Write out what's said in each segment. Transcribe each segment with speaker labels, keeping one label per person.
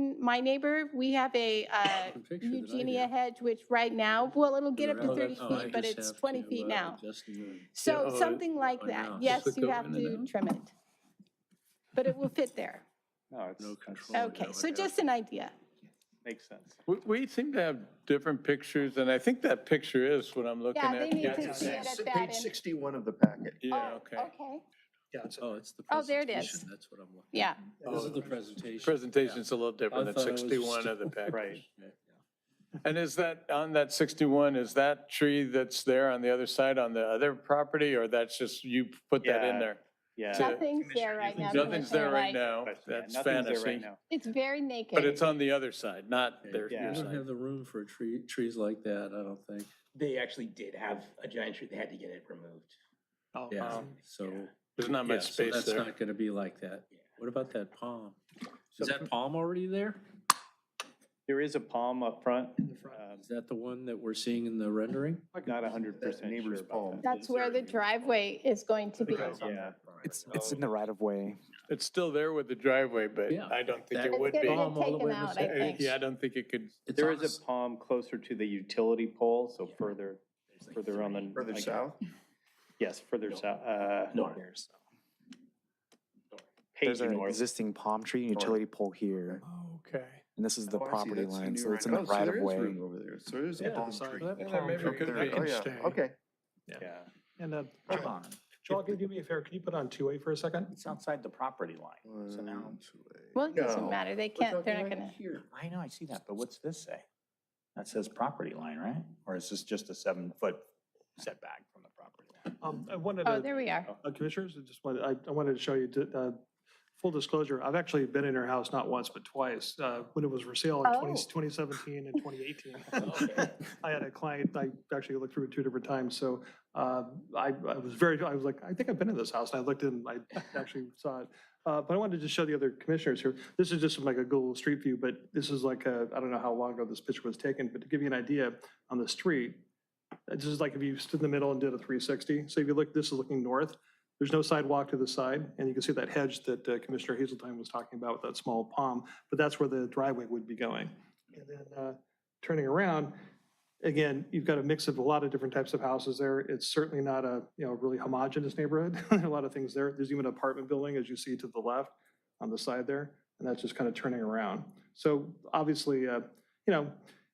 Speaker 1: Mm, my neighbor, we have a uh,
Speaker 2: The picture that I
Speaker 1: Eugenia
Speaker 2: got.
Speaker 1: hedge, which right now, well, it'll get up to
Speaker 2: Oh,
Speaker 1: thirty
Speaker 2: that's- oh, I
Speaker 1: feet, but
Speaker 2: just
Speaker 1: it's
Speaker 2: have
Speaker 1: twenty
Speaker 2: to,
Speaker 1: feet
Speaker 2: uh,
Speaker 1: now.
Speaker 2: adjust the- Yeah,
Speaker 1: So
Speaker 2: oh,
Speaker 1: something like
Speaker 2: oh, no,
Speaker 1: that.
Speaker 2: just
Speaker 1: Yes,
Speaker 2: look
Speaker 1: you
Speaker 2: over
Speaker 1: have
Speaker 2: and
Speaker 1: to
Speaker 2: then-
Speaker 1: trim it. But it will fit there.
Speaker 3: No, it's,
Speaker 2: Oh, No
Speaker 3: it's-
Speaker 2: control.
Speaker 1: Okay, so just an idea.
Speaker 3: makes sense.
Speaker 4: We, we seem to have different pictures, and I think that picture is what I'm looking
Speaker 1: Yeah, they
Speaker 4: at.
Speaker 1: need to
Speaker 5: it's
Speaker 1: see it
Speaker 5: s-
Speaker 1: at that
Speaker 5: Page
Speaker 1: end.
Speaker 5: sixty-one of the packet.
Speaker 4: Yeah,
Speaker 1: Oh,
Speaker 4: okay.
Speaker 1: Okay,
Speaker 5: Yeah, it's-
Speaker 2: Oh, it's the
Speaker 1: Oh, there it is.
Speaker 2: presentation, that's what I'm looking.
Speaker 1: yeah.
Speaker 2: This is the presentation.
Speaker 4: Presentation's a little
Speaker 2: I
Speaker 4: different than
Speaker 2: thought it was just-
Speaker 4: 61 of the package.
Speaker 3: Right.
Speaker 4: And is that, on that 61, is that tree that's there on the other side on the other property, or that's just, you put that in
Speaker 3: Yeah.
Speaker 4: there?
Speaker 3: Yeah.
Speaker 4: So-
Speaker 1: Nothing's there right now. because
Speaker 4: Nothing's
Speaker 1: they're
Speaker 4: there right
Speaker 1: like-
Speaker 4: now,
Speaker 3: but yeah,
Speaker 4: that's
Speaker 3: nothing's there right
Speaker 4: fantasy.
Speaker 3: now.
Speaker 1: It's very naked.
Speaker 4: But it's on the other side, not their,
Speaker 3: Yeah.
Speaker 4: your
Speaker 2: We don't
Speaker 4: side.
Speaker 2: have the room for tree, trees like that, I don't think.
Speaker 6: They actually did have a giant tree. They had to get it removed.
Speaker 2: Oh, Yeah,
Speaker 4: Um,
Speaker 2: so.
Speaker 4: There's not
Speaker 2: yeah,
Speaker 4: much
Speaker 2: so
Speaker 4: space
Speaker 2: That's
Speaker 4: there.
Speaker 2: not gonna be like that. What about that palm? Is
Speaker 5: So-
Speaker 2: that palm already there?
Speaker 3: There is a palm up front, um,
Speaker 2: Is that the one that we're seeing in the rendering?
Speaker 3: not a hundred
Speaker 5: That
Speaker 3: percent sure
Speaker 5: neighbor's
Speaker 3: about
Speaker 5: palm.
Speaker 3: that.
Speaker 1: That's where the driveway is going to be.
Speaker 5: Because-
Speaker 3: Yeah,
Speaker 7: It's, it's in the right of way.
Speaker 4: It's still there with the driveway, but
Speaker 2: Yeah.
Speaker 4: I don't think
Speaker 2: That-
Speaker 4: it
Speaker 1: It's
Speaker 4: would
Speaker 1: gonna
Speaker 4: be.
Speaker 2: Palm
Speaker 1: get
Speaker 2: all the
Speaker 1: taken
Speaker 2: way to
Speaker 1: out,
Speaker 2: the-
Speaker 1: I
Speaker 4: I-
Speaker 1: think.
Speaker 4: Yeah, I don't think it could,
Speaker 2: It's
Speaker 3: there
Speaker 2: on
Speaker 3: is
Speaker 2: s-
Speaker 3: a palm closer to the utility pole, so further, further on the.
Speaker 5: Further
Speaker 3: like,
Speaker 5: south?
Speaker 3: Yes, further south, uh,
Speaker 6: North.
Speaker 3: page
Speaker 7: There's an
Speaker 3: north.
Speaker 7: existing palm tree and
Speaker 5: North.
Speaker 7: utility pole here,
Speaker 4: okay.
Speaker 7: and this is the
Speaker 5: Oh, I see,
Speaker 7: property
Speaker 5: that's the
Speaker 7: line,
Speaker 5: new
Speaker 7: so it's in
Speaker 5: right-
Speaker 7: the
Speaker 5: oh, so
Speaker 7: right of
Speaker 5: there is
Speaker 7: way.
Speaker 5: room Over there, so there is
Speaker 2: Yeah,
Speaker 5: a
Speaker 2: the
Speaker 5: palm
Speaker 2: side-
Speaker 5: tree.
Speaker 2: that-
Speaker 5: A
Speaker 2: that
Speaker 5: palm
Speaker 4: maybe
Speaker 5: tree
Speaker 4: could
Speaker 5: there.
Speaker 4: be
Speaker 5: Oh, yeah.
Speaker 4: interesting.
Speaker 5: Okay.
Speaker 3: Yeah,
Speaker 8: And uh,
Speaker 7: Hold on.
Speaker 8: Joel, can you do me a favor? Can you put on two-way for a second?
Speaker 7: It's outside the property line. So now-
Speaker 5: One, two, eight.
Speaker 1: Well, it doesn't
Speaker 5: No.
Speaker 1: matter. They
Speaker 5: We're
Speaker 1: can't, they're
Speaker 5: talking
Speaker 1: not
Speaker 5: right
Speaker 1: gonna.
Speaker 5: here.
Speaker 7: I know, I see that, but what's this say? That says property line, right? Or is this just a seven-foot setback from the property line?
Speaker 8: Um, I wanted
Speaker 1: Oh,
Speaker 8: to,
Speaker 1: there we are.
Speaker 8: uh, commissioners, I just wanted, I, I wanted to show you, to, uh, full disclosure, I've actually been in her house not once, but twice, uh, when it was for sale in 20
Speaker 1: Oh.
Speaker 8: 2017 and 2018. I had a client, I actually looked through it two different times, so uh, I, I was very, I was like, I think I've been in this house, and I looked in, I actually saw it. Uh, But I wanted to just show the other commissioners here, this is just like a Google Street View, but this is like, a- I don't know how long ago this picture was taken, but to give you an idea, on the street, this is like if you stood in the middle and did a 360, so if you look, this is looking north, there's no sidewalk to the side, and you can see that hedge that uh, Commissioner Hazeltine was talking about with that small palm, but that's where the driveway would be going. And then uh, turning around, again, you've got a mix of a lot of different types of houses there. It's certainly not a, you know, really homogeneous neighborhood. There are A lot of things there. There's even an apartment building, as you see to the left on the side there, and that's just kind of turning around. So obviously, uh, you know,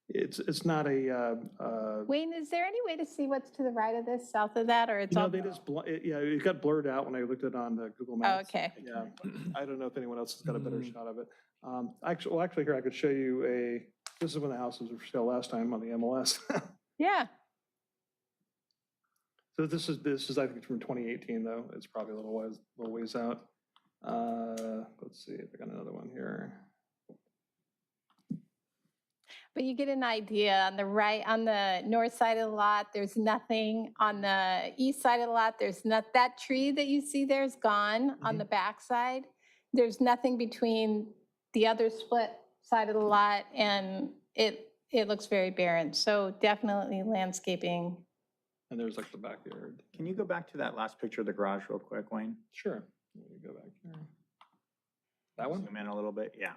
Speaker 8: it's, it's not a, uh, uh,
Speaker 1: Wayne, is there any way to see what's to the right of this, south of that, or it's
Speaker 8: no,
Speaker 1: all?
Speaker 8: they just, bl- it- yeah, it got blurred out when I looked at it on uh, Google
Speaker 1: Oh,
Speaker 8: Maps.
Speaker 1: okay.
Speaker 8: Yeah, I don't know if anyone else has got a better
Speaker 2: Mm.
Speaker 8: shot of it. Um, Actually, well, actually, here, I could show you a, this is when the houses were for sale last time on the MLS.
Speaker 1: Yeah,
Speaker 8: So this is, this is, I think, from 2018, though. It's probably a little ways, little ways out. Uh, Let's see if I got another one here.
Speaker 1: but you get an idea. On the right, on the north side of the lot, there's nothing. On the east side of the lot, there's not, that tree that you see there is gone
Speaker 8: Mm-hmm.
Speaker 1: on the back side. There's nothing between the other split side of the lot and it, it looks very barren. So definitely landscaping.
Speaker 8: And there's like the backyard.
Speaker 7: Can you go back to that last picture of the garage real quick, Wayne?
Speaker 8: Sure. Let me go back here. That one?
Speaker 7: Zoom in a little bit, yeah.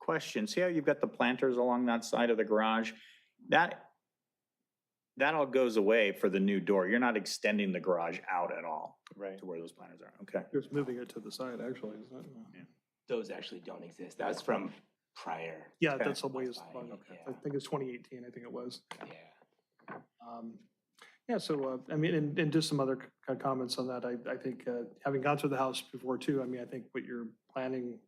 Speaker 7: Question, see how you've got the planters along that side of the garage? That, that all goes away for the new door. You're not extending the garage out at all
Speaker 3: right.
Speaker 7: to where those planters are, okay?
Speaker 8: It's moving it to the side, actually, isn't it?
Speaker 6: Those actually don't exist. That was from prior.
Speaker 8: Yeah,
Speaker 7: Okay.
Speaker 8: that's a ways.
Speaker 6: Fine,
Speaker 8: long.
Speaker 6: okay.
Speaker 8: I think it's 2018, I think it was.
Speaker 6: Yeah.
Speaker 8: Um, Yeah, so, uh, I mean, and, and just some other c- c- comments on that. I, I think, uh, having gone through the house before too, I mean, I think what you're planning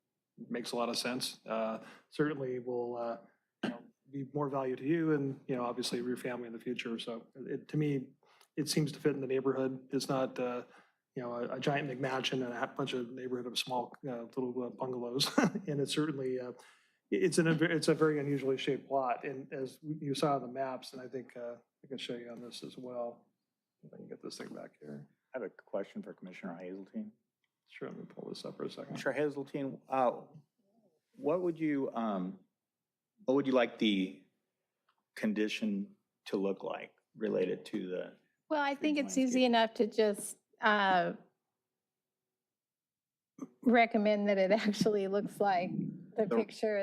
Speaker 8: makes a lot of sense. Uh, Certainly will, uh, you know, be more value to you and, you know, obviously your family in the future. So it, to me, it seems to fit in the neighborhood. It's not, uh, you know, a- a giant McMansion and a ha- bunch of neighborhood of small, uh, little uh, bungalows. And it's certainly, uh, it- it's an, it's a very unusually shaped lot. And as you saw on the maps, and I think, uh, I can show you on this as well. If I can get this thing back here.
Speaker 7: I have a question for Commissioner Hazeltine.
Speaker 8: Sure, let me pull this up for a second.
Speaker 7: Commissioner Hazeltine, uh, what would you, um, what would you like the condition to look like related to the
Speaker 1: Well, I
Speaker 7: Trees,
Speaker 1: think it's
Speaker 7: landscape.
Speaker 1: easy enough to just uh, recommend that it actually looks like the
Speaker 7: The-
Speaker 1: picture